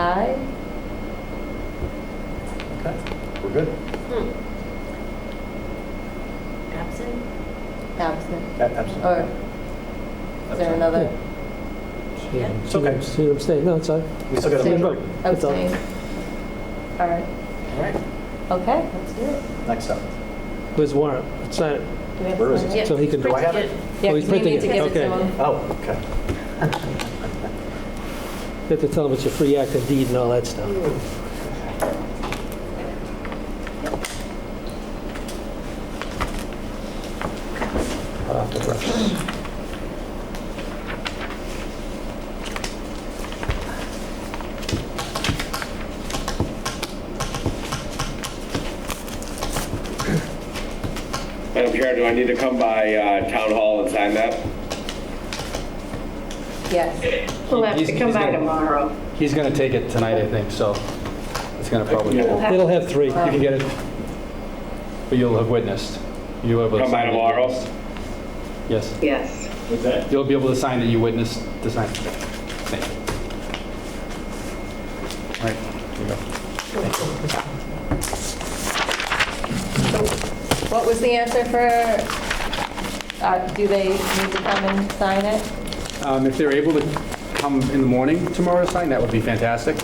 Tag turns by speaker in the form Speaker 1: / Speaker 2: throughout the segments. Speaker 1: Aye.
Speaker 2: Okay, we're good.
Speaker 3: Absent?
Speaker 1: Absent. Or
Speaker 2: Absolutely.
Speaker 1: is there another?
Speaker 3: Yeah.
Speaker 2: It's okay.
Speaker 4: She abstained, no, it's all right.
Speaker 2: We still got a
Speaker 1: Abstain.
Speaker 2: vote.
Speaker 4: That's all.
Speaker 1: Abstain. All right.
Speaker 2: All right,
Speaker 1: Okay, let's do it.
Speaker 2: next up.
Speaker 4: Where's the warrant? Sign it.
Speaker 1: Do we have
Speaker 2: Where
Speaker 1: to
Speaker 2: is
Speaker 1: sign
Speaker 2: it?
Speaker 4: So he can-
Speaker 3: Yeah,
Speaker 2: Do I have it?
Speaker 1: Yeah,
Speaker 4: Oh, he's
Speaker 1: 'cause we
Speaker 4: printing
Speaker 1: need to
Speaker 4: it.
Speaker 1: give it to
Speaker 4: Okay.
Speaker 1: him.
Speaker 2: Oh, okay.
Speaker 4: You have to tell him it's a free act of deed and all that stuff.
Speaker 2: Hot off the presses.
Speaker 5: Madam Chair, do I need to come by uh, Town Hall and sign that?
Speaker 1: Yes.
Speaker 6: We'll have to come by tomorrow.
Speaker 7: He's going to take it tonight, I think, so it's going to probably, you
Speaker 6: We'll
Speaker 4: It'll have three.
Speaker 7: can get it, but you'll have witnessed. You'll have.
Speaker 5: Come by tomorrow?
Speaker 7: Yes.
Speaker 6: Yes.
Speaker 5: What's that?
Speaker 7: You'll be able to sign that you witnessed the sign. Thank you. All right, here you go.
Speaker 1: What was the answer for, uh, do they need to come and sign it?
Speaker 7: Um, If they're able to come in the morning tomorrow to sign, that would be fantastic.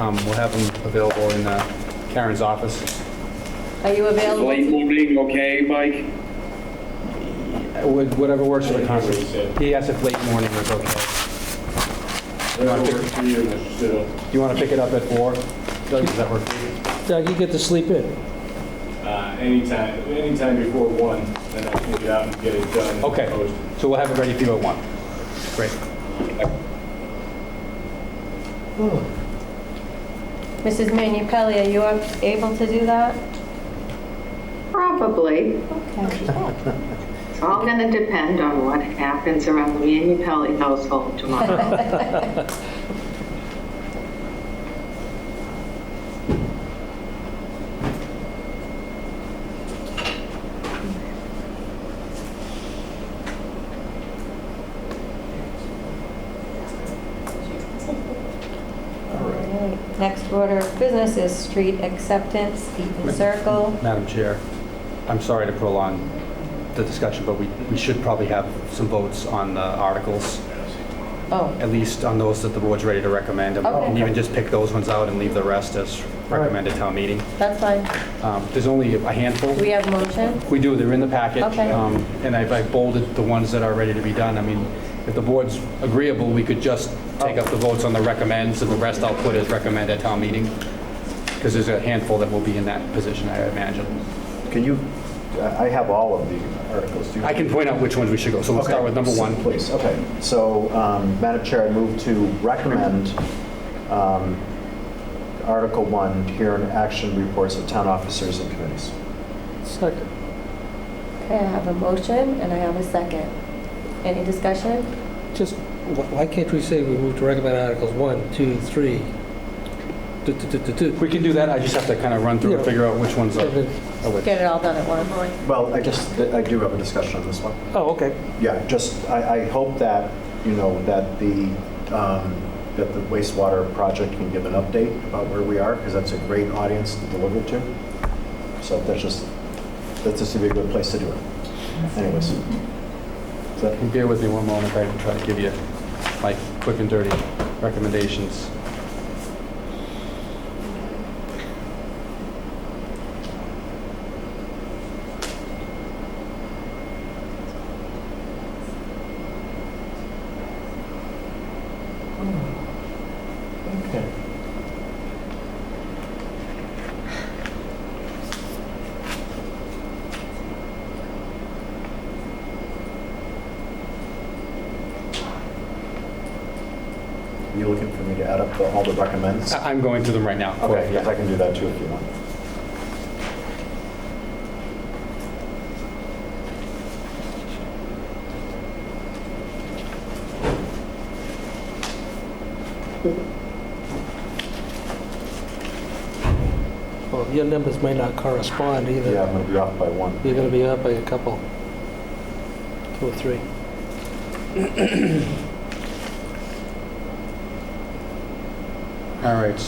Speaker 7: Um, We'll have them available in uh, Karen's office.
Speaker 1: Are you
Speaker 5: Is
Speaker 1: available?
Speaker 5: late
Speaker 1: to-
Speaker 5: evening okay, Mike?
Speaker 7: Uh, would- Whatever works for the conference. He asked if late morning was okay. You wanna pick- You want to pick it up at four? Doug, does that work? for you?
Speaker 4: Doug, you get to sleep in.
Speaker 8: Uh, Anytime, anytime before one, then I can get out and get it done. and
Speaker 7: Okay,
Speaker 8: posted.
Speaker 7: so we'll have it ready for you at one. Great.
Speaker 1: Mrs. Minipelli, are you ab- able to do that?
Speaker 6: Probably.
Speaker 1: Okay.
Speaker 6: It's all going to depend on what happens around the Manu Pelley household tomorrow.
Speaker 1: Next order of business is street acceptance, Eaton Circle.
Speaker 7: Madam Chair, I'm sorry to prolong the discussion, but we we should probably have some votes on the articles,
Speaker 1: Oh,
Speaker 7: at least on those that the board's ready to recommend. and-
Speaker 1: Okay.
Speaker 7: And even just pick those ones out and leave the rest as recommended town meeting.
Speaker 1: that's fine.
Speaker 7: Um, There's only a handful.
Speaker 1: Do we have motion?
Speaker 7: We do, they're in the packet.
Speaker 1: Okay.
Speaker 7: Um, And I've I've bolded the ones that are ready to be done. I mean, if the board's agreeable, we could just take up the votes on the recommends, and the rest I'll put as recommend at town meeting, because there's a handful that will be in that position, I imagine.
Speaker 2: Can you, I I have all of the articles. Do you-
Speaker 7: I can point out which ones we should go, so we'll start
Speaker 2: Okay.
Speaker 7: with number one.
Speaker 2: Please, okay. So, um, Madam Chair, I move to recommend um, Article 1, here in action reports of town officers and committees.
Speaker 4: Second.
Speaker 1: Okay, I have a motion and I have a second. Any discussion?
Speaker 4: Just, wh- why can't we say we move to recommend Articles 1, 2, 3? Du- du- du- du- du.
Speaker 7: We can do that, I just have to kind of run through and
Speaker 4: Yeah.
Speaker 7: figure out which ones are are which.
Speaker 1: Get it all done at once.
Speaker 2: Well, I just, I do have a discussion on this one.
Speaker 4: Oh, okay.
Speaker 2: Yeah, just, I, I hope that, you know, that the, um, that the wastewater project can give an update about where we are, because that's a great audience to deliver to. So that's just, that's just gonna be a good place to do it. Anyways. Is that-
Speaker 7: Bear with me one moment, I can try to give you my quick and dirty recommendations.
Speaker 2: Okay. You looking for me to add up the- all the recommends?
Speaker 7: I- I'm going through them right now.
Speaker 2: Okay,
Speaker 7: Yeah.
Speaker 2: yes, I can do that too if you want.
Speaker 4: Well, your numbers may not correspond either.
Speaker 2: Yeah, I'm going to be off by one.
Speaker 4: You're going to be up by a couple, two or three.
Speaker 7: All right,